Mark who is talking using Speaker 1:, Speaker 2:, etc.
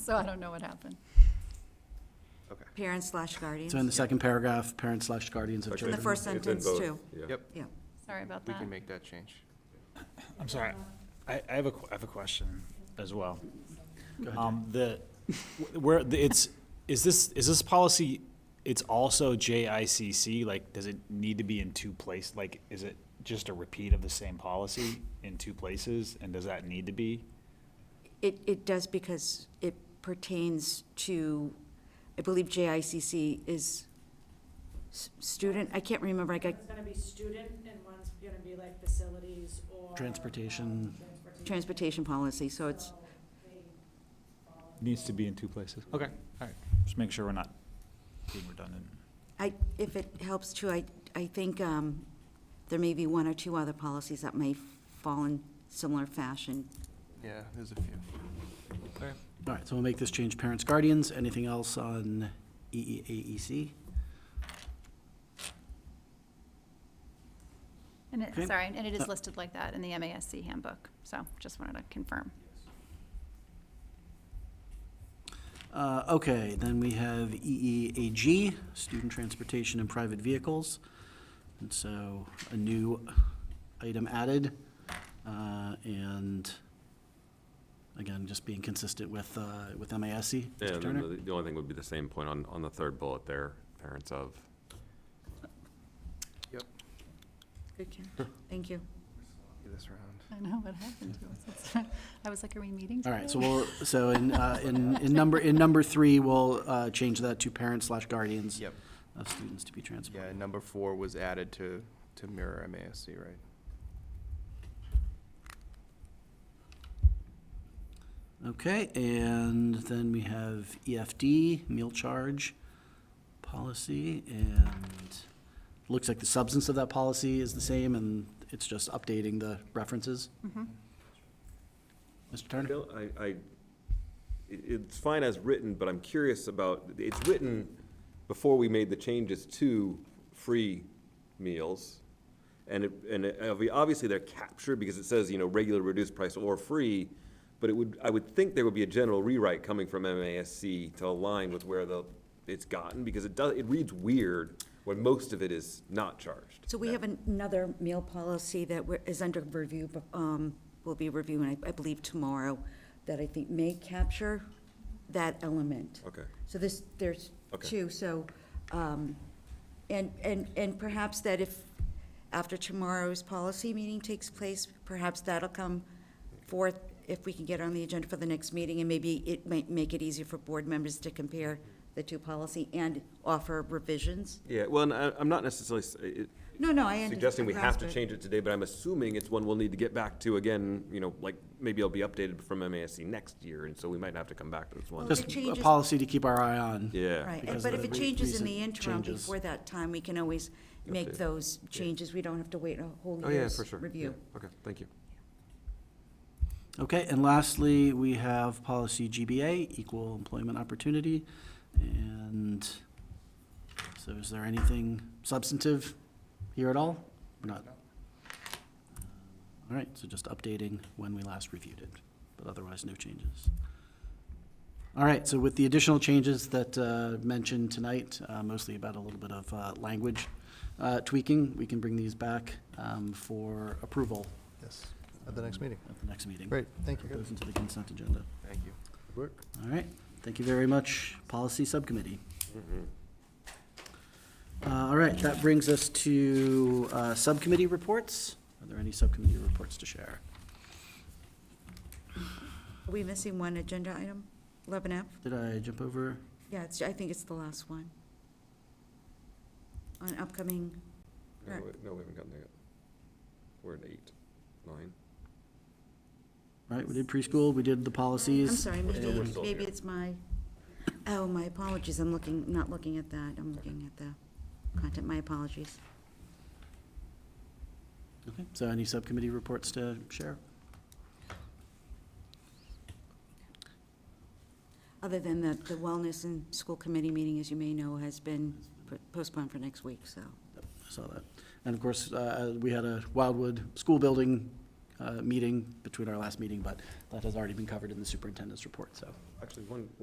Speaker 1: so I don't know what happened.
Speaker 2: Okay.
Speaker 3: Parents slash guardians.
Speaker 4: So in the second paragraph, parents slash guardians of
Speaker 2: Okay.
Speaker 3: In the
Speaker 4: children.
Speaker 3: first
Speaker 2: It's in
Speaker 3: sentence,
Speaker 2: both,
Speaker 3: too.
Speaker 2: yeah.
Speaker 5: Yep,
Speaker 3: Yeah.
Speaker 1: Sorry about
Speaker 5: we
Speaker 1: that.
Speaker 5: can make that change.
Speaker 6: I'm sorry, I, I have a, que- I have a question as well. Um, the, where, the- it's, is this, is this policy, it's also JICC, like, does it need to be in two places? Like, is it just a repeat of the same policy in two places, and does that need to be?
Speaker 3: It, it does because it pertains to, I believe JICC is s- student, I can't remember, I got
Speaker 7: One's gonna be student and one's gonna be like facilities or.
Speaker 4: Transportation.
Speaker 7: um,
Speaker 3: transportation policy, so it's,
Speaker 6: Needs to be in two places, okay, all right, just make sure we're not being redundant.
Speaker 3: I, if it helps too, I, I think um, there may be one or two other policies that may fall in similar fashion.
Speaker 5: Yeah, there's a few. Okay.
Speaker 4: All right, so we'll make this change, parents, guardians. Anything else on E EEAEC?
Speaker 1: And it,
Speaker 4: Okay.
Speaker 1: sorry, and it
Speaker 4: Uh,
Speaker 1: is listed like that in the MASC handbook, so just wanted to confirm.
Speaker 4: Uh, okay, then we have E EEAG, student transportation and private vehicles. And so a new item added, uh, and again, just being consistent with, uh, with MASC. Mr.
Speaker 2: And then
Speaker 4: Turner?
Speaker 2: the- the only thing would be the same point on, on the third bullet there, parents of.
Speaker 5: Yep,
Speaker 3: Good catch. Thank you.
Speaker 5: do this round.
Speaker 1: I know what happened to us. I was like, are we meeting?
Speaker 4: All right,
Speaker 1: today?
Speaker 4: so we'll, so in, uh, in, in number, in number three, we'll, uh, change that to parents slash guardians.
Speaker 5: Yep.
Speaker 4: Of students to be
Speaker 5: Yeah,
Speaker 4: transported.
Speaker 5: and number four was added to, to mirror MASC, right?
Speaker 4: Okay, and then we have EFD, meal charge policy, and looks like the substance of that policy is the same, and it's just updating the references. Mr. Turner?
Speaker 8: No, I, I, it- it's fine as written, but I'm curious about, it's written before we made the changes to free meals. And it, and it- obvi- obviously they're captured because it says, you know, regular reduced price or free. But it would, I would think there would be a general rewrite coming from MASC to align with where the, it's gotten, because it does, it reads weird when most of it is not charged.
Speaker 3: So we have another meal policy that we're- is under review, but um, we'll be reviewing, I I believe, tomorrow, that I think may capture that element.
Speaker 8: Okay.
Speaker 3: So this, there's
Speaker 8: Okay.
Speaker 3: two, so, um, and, and, and perhaps that if, after tomorrow's policy meeting takes place, perhaps that'll come forth if we can get on the agenda for the next meeting, and maybe it might make it easier for board members to compare the two policy and offer revisions.
Speaker 8: Yeah, well, and I, I'm not necessarily, s- it,
Speaker 3: No, no, I understand.
Speaker 8: suggesting we have to
Speaker 3: Grasp it.
Speaker 8: change it today, but I'm assuming it's one we'll need to get back to again, you know, like, maybe it'll be updated from MASC next year, and so we might have to come back to this one.
Speaker 3: Well,
Speaker 4: Just a
Speaker 3: changes-
Speaker 4: policy to keep our eye on.
Speaker 8: Yeah.
Speaker 3: Right, and-
Speaker 4: because
Speaker 3: but
Speaker 4: of
Speaker 3: if it
Speaker 4: the re-
Speaker 3: changes in the
Speaker 4: recent
Speaker 3: interim
Speaker 4: changes.
Speaker 3: before that time, we can always make
Speaker 8: Update.
Speaker 3: those changes. We don't have to wait a whole
Speaker 8: Oh, yeah,
Speaker 3: year's
Speaker 8: for sure.
Speaker 3: review.
Speaker 8: Yeah. Okay, thank you.
Speaker 4: Okay, and lastly, we have policy GBA, equal employment opportunity. And so is there anything substantive here at all? Or not? All right, so just updating when we last reviewed it, but otherwise no changes. All right, so with the additional changes that uh, mentioned tonight, uh, mostly about a little bit of uh, language uh, tweaking, we can bring these back um, for approval
Speaker 5: Yes, at the next meeting.
Speaker 4: at the next meeting.
Speaker 5: Great, thank you.
Speaker 4: Goes into the consent agenda.
Speaker 5: Thank you. Work.
Speaker 4: All right, thank you very much, Policy Subcommittee.
Speaker 5: Mm-hmm.
Speaker 4: Uh, All right, that brings us to uh, Subcommittee reports. Are there any Subcommittee reports to share?
Speaker 3: Are we missing one agenda item? Eleven F?
Speaker 4: Did I jump over?
Speaker 3: Yeah, it's, I think it's the last one. On upcoming,
Speaker 8: No,
Speaker 3: Right.
Speaker 8: wait, No, we haven't gotten there yet. We're at eight, nine.
Speaker 4: Right, we did preschool, we did the policies.
Speaker 3: I'm sorry, maybe,
Speaker 8: we're still
Speaker 3: maybe
Speaker 8: here.
Speaker 3: it's my, oh, my apologies, I'm looking, not looking at that, I'm looking at the content, my apologies.
Speaker 4: Okay, So any Subcommittee reports to share?
Speaker 3: Other than that, the wellness and school committee meeting, as you may know, has been postponed for next week, so.
Speaker 4: I saw that. And of course, uh, we had a Wildwood School Building uh, meeting between our last meeting, but that has already been covered in the superintendent's report, so.
Speaker 8: Actually, one,